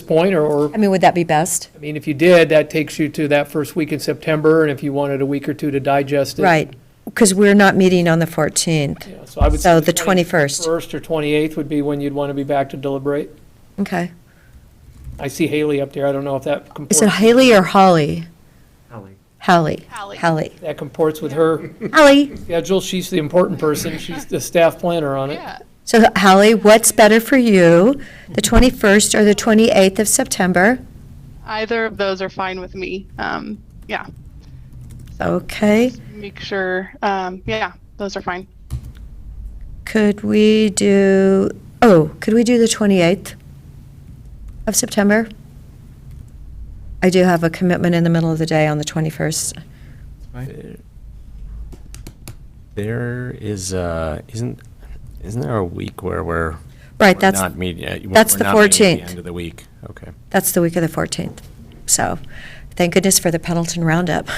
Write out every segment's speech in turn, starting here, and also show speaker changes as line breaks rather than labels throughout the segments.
point, or- or,
I mean, would that be best?
I mean, if you did, that takes you to that first week in September, and if you wanted a week or two to digest it.
Right, because we're not meeting on the 14th.
yeah, So I would.
So
say
the 21st.
First or 28th would be when you'd want to be back to deliberate.
Okay.
I see Haley up there, I don't know if that
Is it
comports,
Haley or Holly?
Holly.
Hallie.
Hallie.
Hallie.
that comports with her
Hallie.
schedule, she's the important person, she's the staff planner on it.
Yeah,
So Hallie, what's better for you, the 21st or the 28th of September?
either of those are fine with me. Um, yeah,
Okay,
make sure. Um, yeah, those are fine.
could we do, oh, could we do the 28th of September? I do have a commitment in the middle of the day on the 21st.
There is, uh, isn't, isn't there a week where we're?
Right,
we're
that's,
Not meeting, uh, we're
that's the
not meeting at
14th.
the end of the week, okay.
that's the week of the 14th. So, thank goodness for the Pendleton Roundup.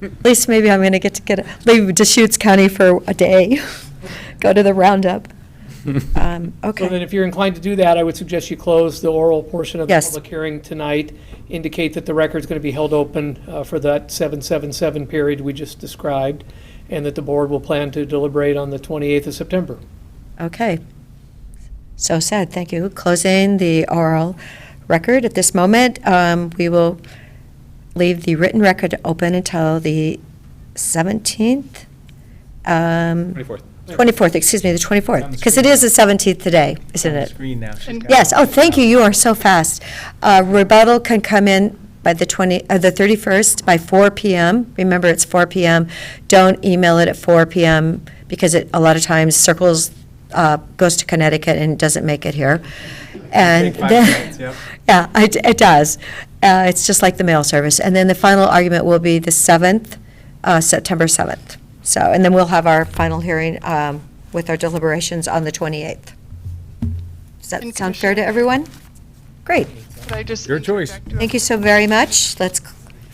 At least maybe I'm going to get to get, leave Deschutes County for a day, go to the Roundup. Um,
So then
Okay,
if you're inclined to do that, I would suggest you close the oral portion of the
Yes.
public hearing tonight, indicate that the record's going to be held open uh, for that 777 period we just described, and that the board will plan to deliberate on the 28th of September.
okay. So said, thank you. Closing the oral record at this moment. Um, We will leave the written record open until the 17th, um,
24th.
24th, excuse me, the 24th, because it is the 17th today, isn't it?
Screen now. she's
And-
got
Yes,
it.
oh, thank you, you are so fast. Uh, Rebuttal can come in by the 20, uh, the 31st by 4 PM. Remember, it's 4 PM. Don't email it at 4 PM because it, a lot of times circles, uh, goes to Connecticut and doesn't make it here. And
Take five
then-
minutes, yep.
yeah, it, it does. Uh, It's just like the mail service. And then the final argument will be the 7th, uh, September 7th. So, and then we'll have our final hearing um, with our deliberations on the 28th. Does that
And
sound fair to
Commissioner-
everyone? Great.
Could I just
Your choice.
interject real-
Thank you so very much. Let's,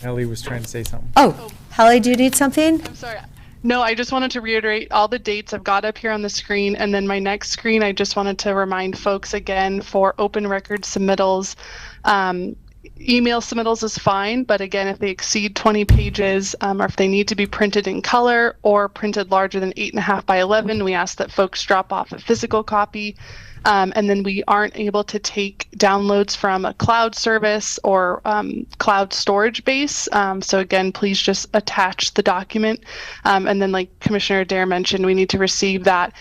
Ellie was trying to say something.
oh, Holly, do you need something?
I'm sorry. No, I just wanted to reiterate all the dates I've got up here on the screen. And then my next screen, I just wanted to remind folks again for open record submittals. Um, email submittals is fine, but again, if they exceed 20 pages um, or if they need to be printed in color or printed larger than 8.5 by 11, we ask that folks drop off a physical copy. Um, and then we aren't able to take downloads from a cloud service or um, cloud storage base. Um, so again, please just attach the document. Um, and then, like Commissioner Dare mentioned, we need to receive that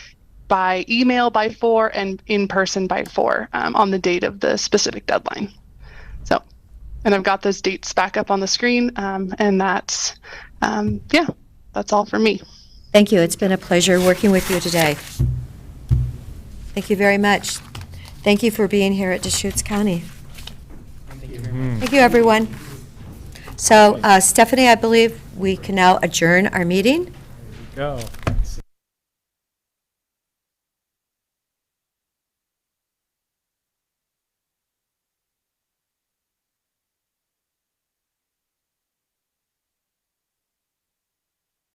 by email by four and in person by four um, on the date of the specific deadline. So, and I've got those dates back up on the screen. Um, and that's, um, yeah, that's all for me.
Thank you. It's been a pleasure working with you today. Thank you very much. Thank you for being here at Deschutes County. Thank you, everyone. So uh, Stephanie, I believe we can now adjourn our meeting.
Go.